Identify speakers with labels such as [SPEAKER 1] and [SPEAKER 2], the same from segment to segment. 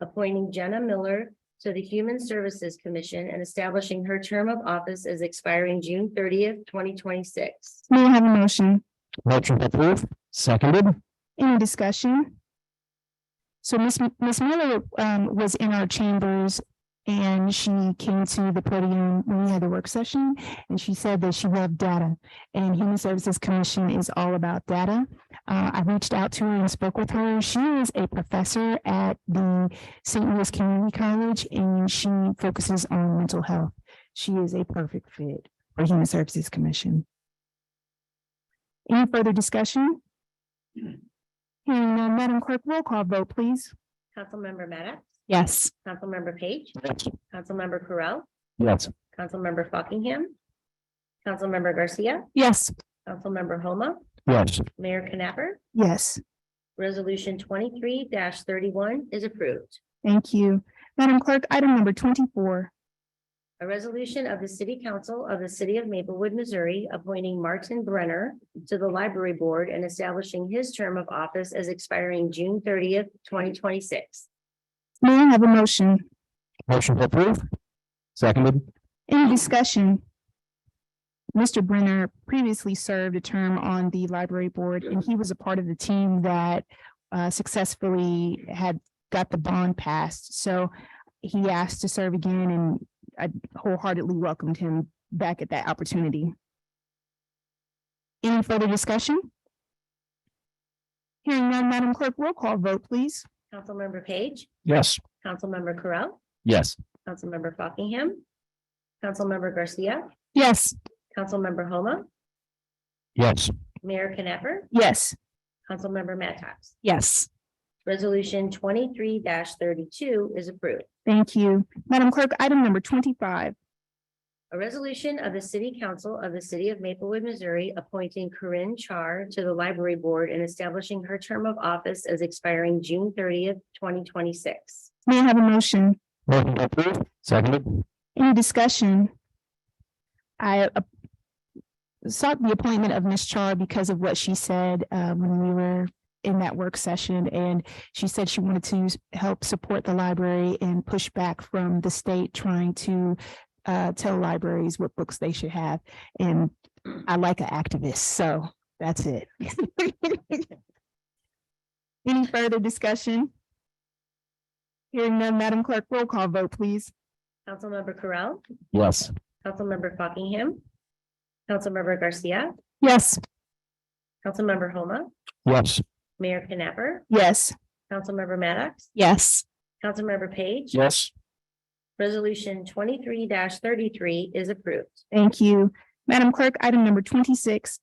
[SPEAKER 1] appointing Jenna Miller to the Human Services Commission and establishing her term of office as expiring June thirtieth, twenty twenty-six.
[SPEAKER 2] May I have a motion?
[SPEAKER 3] Motion to approve, seconded.
[SPEAKER 2] Any discussion? So Miss M- Miss Miller um was in our chambers and she came to the podium when we had the work session and she said that she loved data. And Human Services Commission is all about data. Uh, I reached out to her and spoke with her. She is a professor at the St. Louis Community College and she focuses on mental health. She is a perfect fit for Human Services Commission. Any further discussion? Hearing none, Madam Clerk, roll call vote, please.
[SPEAKER 1] Councilmember Maddox,
[SPEAKER 2] Yes.
[SPEAKER 1] Councilmember Page,
[SPEAKER 3] Yes.
[SPEAKER 1] Councilmember Correll,
[SPEAKER 3] Yes.
[SPEAKER 1] Councilmember Fockingham, Councilmember Garcia,
[SPEAKER 2] Yes.
[SPEAKER 1] Councilmember Homa,
[SPEAKER 3] Yes.
[SPEAKER 1] Mayor Knapper.
[SPEAKER 2] Yes,
[SPEAKER 1] Resolution twenty-three thirty-one is approved.
[SPEAKER 2] thank you. Madam Clerk, item number twenty-four,
[SPEAKER 1] A resolution of the City Council of the City of Maplewood, Missouri, appointing Martin Brenner to the Library Board and establishing his term of office as expiring June thirtieth, twenty twenty-six.
[SPEAKER 2] may I have a motion?
[SPEAKER 3] Motion to approve, seconded.
[SPEAKER 2] Any discussion? Mr. Brenner previously served a term on the library board and he was a part of the team that uh, successfully had got the bond passed. So he asked to serve again and I wholeheartedly welcomed him back at that opportunity. Any further discussion? Hearing none, Madam Clerk, roll call vote, please.
[SPEAKER 1] Councilmember Page,
[SPEAKER 3] Yes.
[SPEAKER 1] Councilmember Correll,
[SPEAKER 3] Yes.
[SPEAKER 1] Councilmember Fockingham, Councilmember Garcia,
[SPEAKER 2] Yes.
[SPEAKER 1] Councilmember Homa,
[SPEAKER 3] Yes.
[SPEAKER 1] Mayor Knapper,
[SPEAKER 2] Yes.
[SPEAKER 1] Councilmember Mattox.
[SPEAKER 2] Yes.
[SPEAKER 1] Resolution twenty-three thirty-two is approved.
[SPEAKER 2] Thank you. Madam Clerk, item number twenty-five,
[SPEAKER 1] A resolution of the City Council of the City of Maplewood, Missouri, appointing Corinne Char to the Library Board and establishing her term of office as expiring June thirtieth, twenty twenty-six.
[SPEAKER 2] may I have a motion?
[SPEAKER 3] Motion to approve, seconded.
[SPEAKER 2] Any discussion? I uh, sought the appointment of Ms. Char because of what she said uh, when we were in that work session. And she said she wanted to s- help support the library and push back from the state trying to uh, tell libraries what books they should have. And I like an activist, so that's it. Any further discussion? Hearing none, Madam Clerk, roll call vote, please.
[SPEAKER 1] Councilmember Correll,
[SPEAKER 3] Yes.
[SPEAKER 1] Councilmember Fockingham, Councilmember Garcia,
[SPEAKER 2] Yes.
[SPEAKER 1] Councilmember Homa,
[SPEAKER 3] Yes.
[SPEAKER 1] Mayor Knapper,
[SPEAKER 2] Yes,
[SPEAKER 1] Councilmember Maddox,
[SPEAKER 2] yes,
[SPEAKER 1] Councilmember Page.
[SPEAKER 3] Yes.
[SPEAKER 1] Resolution twenty-three thirty-three is approved.
[SPEAKER 2] thank you. Madam Clerk, item number twenty-six,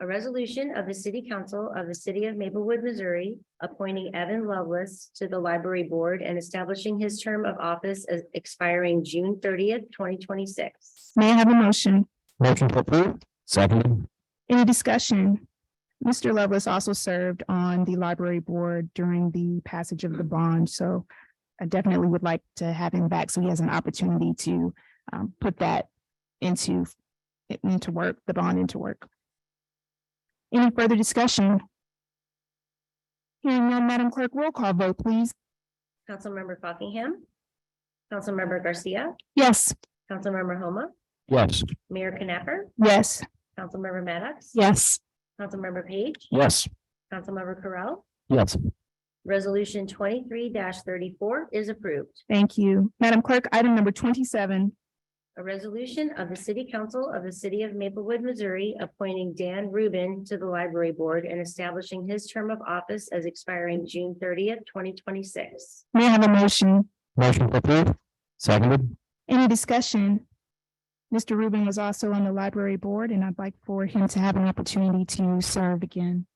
[SPEAKER 1] A resolution of the City Council of the City of Maplewood, Missouri, appointing Evan Lovelace to the Library Board and establishing his term of office as expiring June thirtieth, twenty twenty-six.
[SPEAKER 2] may I have a motion?
[SPEAKER 3] Motion to approve, seconded.
[SPEAKER 2] Any discussion? Mr. Lovelace also served on the library board during the passage of the bond, so I definitely would like to have him back so he has an opportunity to um, put that into into work, the bond into work. Any further discussion? Hearing none, Madam Clerk, roll call vote, please.
[SPEAKER 1] Councilmember Buckingham. Councilmember Garcia,
[SPEAKER 2] Yes.
[SPEAKER 1] Councilmember Homa,
[SPEAKER 3] Yes.
[SPEAKER 1] Mayor Knapper,
[SPEAKER 2] Yes.
[SPEAKER 1] Councilmember Maddox.
[SPEAKER 2] Yes.
[SPEAKER 1] Councilmember Page,
[SPEAKER 3] Yes.
[SPEAKER 1] Councilmember Correll.
[SPEAKER 3] Yes.
[SPEAKER 1] Resolution twenty-three thirty-four is approved.
[SPEAKER 2] Thank you. Madam Clerk, item number twenty-seven,
[SPEAKER 1] A resolution of the City Council of the City of Maplewood, Missouri, appointing Dan Rubin to the Library Board and establishing his term of office as expiring June thirtieth, twenty twenty-six.
[SPEAKER 2] may I have a motion?
[SPEAKER 3] Motion to approve, seconded.
[SPEAKER 2] Any discussion? Mr. Rubin was also on the library board and I'd like for him to have an opportunity to serve again.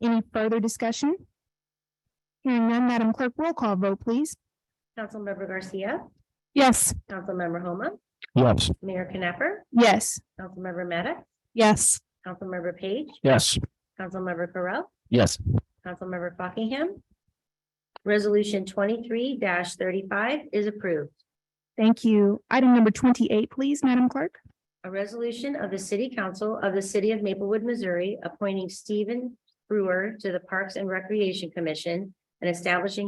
[SPEAKER 2] Any further discussion? Hearing none, Madam Clerk, roll call vote, please.
[SPEAKER 1] Councilmember Garcia,
[SPEAKER 2] Yes.
[SPEAKER 1] Councilmember Homa,
[SPEAKER 3] Yes.
[SPEAKER 1] Mayor Knapper,
[SPEAKER 2] Yes.
[SPEAKER 1] Councilmember Maddox,
[SPEAKER 2] Yes.
[SPEAKER 1] Councilmember Page,
[SPEAKER 3] Yes.
[SPEAKER 1] Councilmember Correll,
[SPEAKER 3] Yes.
[SPEAKER 1] Councilmember Buckingham. Resolution twenty-three thirty-five is approved.
[SPEAKER 2] Thank you. Item number twenty-eight, please, Madam Clerk.
[SPEAKER 1] A resolution of the City Council of the City of Maplewood, Missouri, appointing Stephen Brewer to the Parks and Recreation Commission and establishing